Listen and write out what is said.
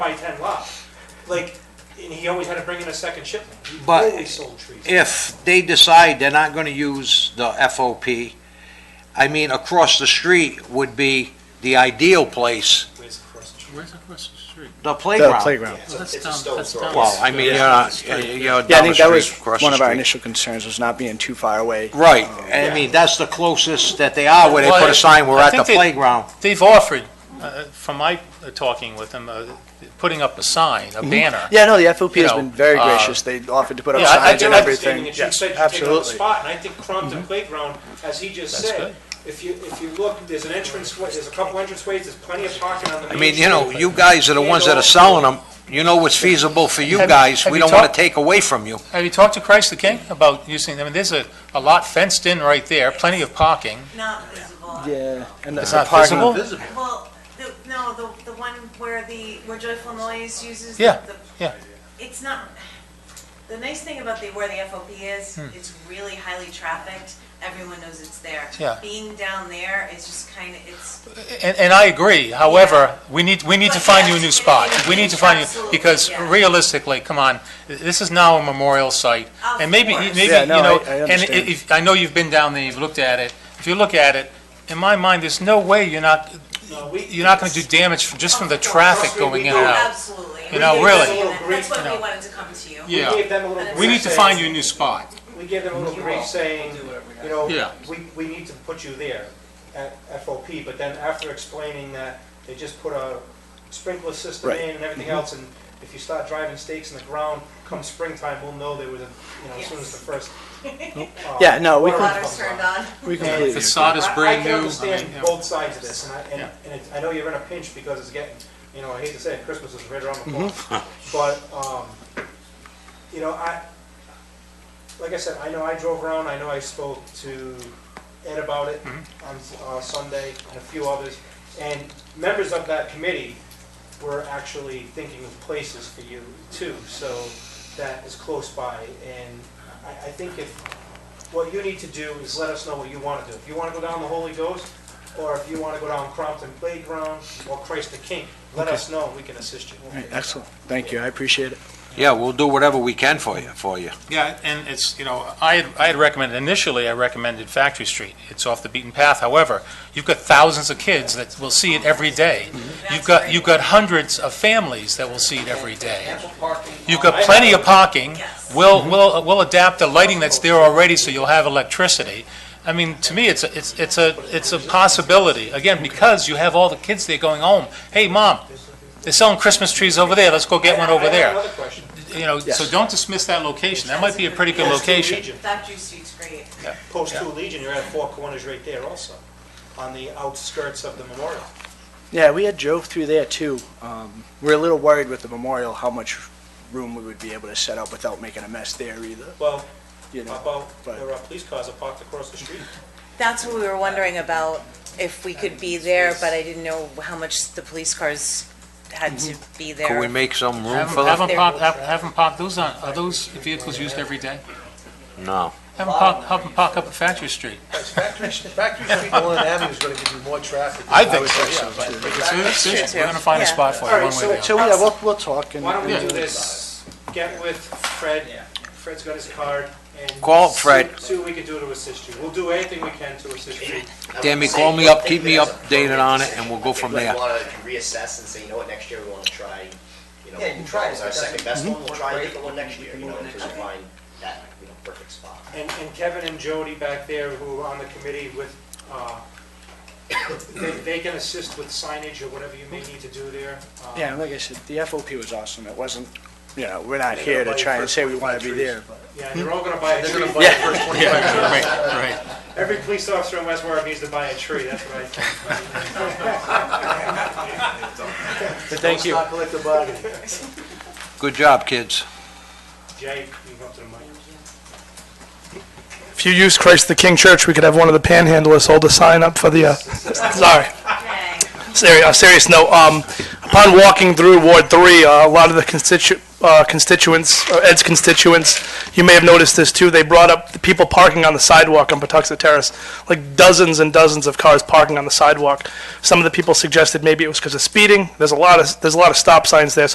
by ten lot. Like, and he always had to bring in a second shipment. He But always sold trees. if they decide they're not gonna use the FOP, I mean, across the street would be the ideal place, Where's across the street? Where's across the street? the The playground. playground. Yeah, Oh, that's it's a down- stone that's throw. down. Well, I mean, you're not, Yeah. you're Yeah, I down the think that was street, across one the of our street. initial Oh, concerns, was not being too far away. Right, I mean, that's the closest that they are, where they Well, put a sign, we're I at the think they- playground. They've offered, uh, from my uh, talking with them, uh, putting up a sign, Mm-hmm. a banner. Yeah, no, the FOP You has know, been very uh, gracious. They offered to put up yeah, I- I signs do and have everything. And you Yes, said you take up the absolutly. spot, and I think Crompton Playground, as he just Mm-hmm. That's said, good. if you, if you look, there's an entrance, way- there's a couple entrance ways, there's plenty of parking on the I main mean, you know, street. you guys are the ones that are selling them, you know what's feasible for you Have- guys, have we you don't wanna talked- take away from you. Have you talked to Christ the King about using, I mean, there's a, a lot fenced in right there, plenty of parking. Not visible. Yeah, and the It's the not parking- visible? Well, the, no, the, the one where the, where Joyful Noise uses. the- Yeah, the- yeah. It's not, the nice thing about the, where the FOP is, Hmm. it's really highly trafficked. Everyone knows it's there. Yeah. Being down there is just kind of, it's, And, and I agree, however, we need, we need to But find you a yes, new it- spot. it- We need to it's find you, absolutely, because yeah. realistically, come on, this is now a memorial site. Of And maybe, course. maybe, Yeah, you no, know, I- I and understand. if, I know you've been down there, you've looked at it. If you look at it, in my mind, there's no way you're not, No, we- you're not gonna do damage from- just from the traffic going in and out. Oh, absolutely. You know, We- really. That's You why know. we wanted to come to you. We Yeah. gave them a little We brief need to saying- find you a new spot. We gave them a little brief saying, you know, Yeah. we, we need to put you there at FOP, but then after explaining that, they just put a sprinkler system Right. in and everything else, and if you start driving stakes in the ground, come springtime, we'll know there was a, you know, as soon as the first. uh, Yeah, no, we water Water's comes turned on. on. We And completely agree. Facade is I- brand I can new. I understand mean, yeah. both sides of this, and I, and, Yeah. and it's- I know you're in a pinch because it's getting, you know, I hate to say it, Christmas is right around the corner. Mm-hmm. But, um, you know, I, like I said, I know I drove around, I know I spoke to Ed about it Mm-hmm. on, uh, Sunday and a few others. And members of that committee were actually thinking of places for you too, so that is close by. And I, I think if, what you need to do is let us know what you want to do. If you want to go down the Holy Ghost, or if you want to go down Crompton Playground, or Christ the King, let us know, and we can assist you. All right, Excellent. Thank you. I appreciate it. Yeah, we'll do whatever we can for you, for you. Yeah, and it's, you know, I had, I had recommended, initially I recommended Factory Street. It's off the beaten path, however, you've got thousands of kids that will see it every day. You've Mm-hmm. That's got, great. you've got hundreds of families that will see it every day. Ample parking. You've got plenty of parking. Yes. We'll, we'll, we'll adapt the lighting that's there already, so you'll have electricity. I mean, to me, it's, a- it's, it's a, it's a possibility, again, because you have all the kids there going home. Hey, mom, they're selling Christmas trees over there, let's go get one over I have there. another question. You know, so Yes. don't dismiss that location, that might be a pretty good Post two location. Legion- Factory Street's great. Post two Legion, you're at four corners right there also, on the outskirts of the memorial. Yeah, we had drove through there too. Um, We're a little worried with the memorial, how much room we would be able to set up without making a mess there either, Well, you how know? about, there are police cars are parked across the street. That's what we were wondering about, if we could be there, but I didn't know how much the police cars had to be Could we there. make some room Have for them, have them? 'em park, have, have 'em park, those aren't, are those vehicles used every day? No. Have them park, have 'em park up at Factory Street. Factory, Factory Street, Nolan Avenue is gonna give you more traffic. I think so, yeah, but- It's- it's- true, We're gonna find a yeah. spot for All you, right, one way or the other. So, yeah, we'll, we'll talk and. Why don't we and- do this, get with Fred, Fred's got his card, and. Call see- Fred. See what we can do to assist you. We'll do anything we can to assist you. Tammy, call me up, keep me updated on it, and we'll go from there. If you want to reassess and say, you know what, next year we want to try, you know, Yeah, you can try it, but what was our second doesn't- best one, we'll Mhm. try a Right. different one next We year, can you know, move it until next we year. find that, you know, perfect spot. And, and Kevin and Jody back there who are on the committee with, uh, they, they can assist with signage or whatever you may need to do there. Uh, Yeah, like I said, the FOP was awesome. It wasn't, you know, we're not here to try and say we want to be there, but. Yeah, they're all gonna buy a They're gonna tree. buy the first twenty-five. Right, right. Every police officer in West Warwick needs to buy a tree, that's what I think. Thank you. Good job, kids. Jay, you go up to the mic. If you use Christ the King Church, we could have one of the panhandlers hold a sign up for the, uh, sorry, Okay. serious, uh, serious note. Um, upon walking through Ward Three, uh, a lot of the constitu- uh, constituents, or Ed's constituents, you may have noticed this too, they brought up the people parking on the sidewalk on Patuxent Terrace, like dozens and dozens of cars parking on the sidewalk. Some of the people suggested maybe it was because of speeding. There's a lot of, there's a lot of stop signs there, so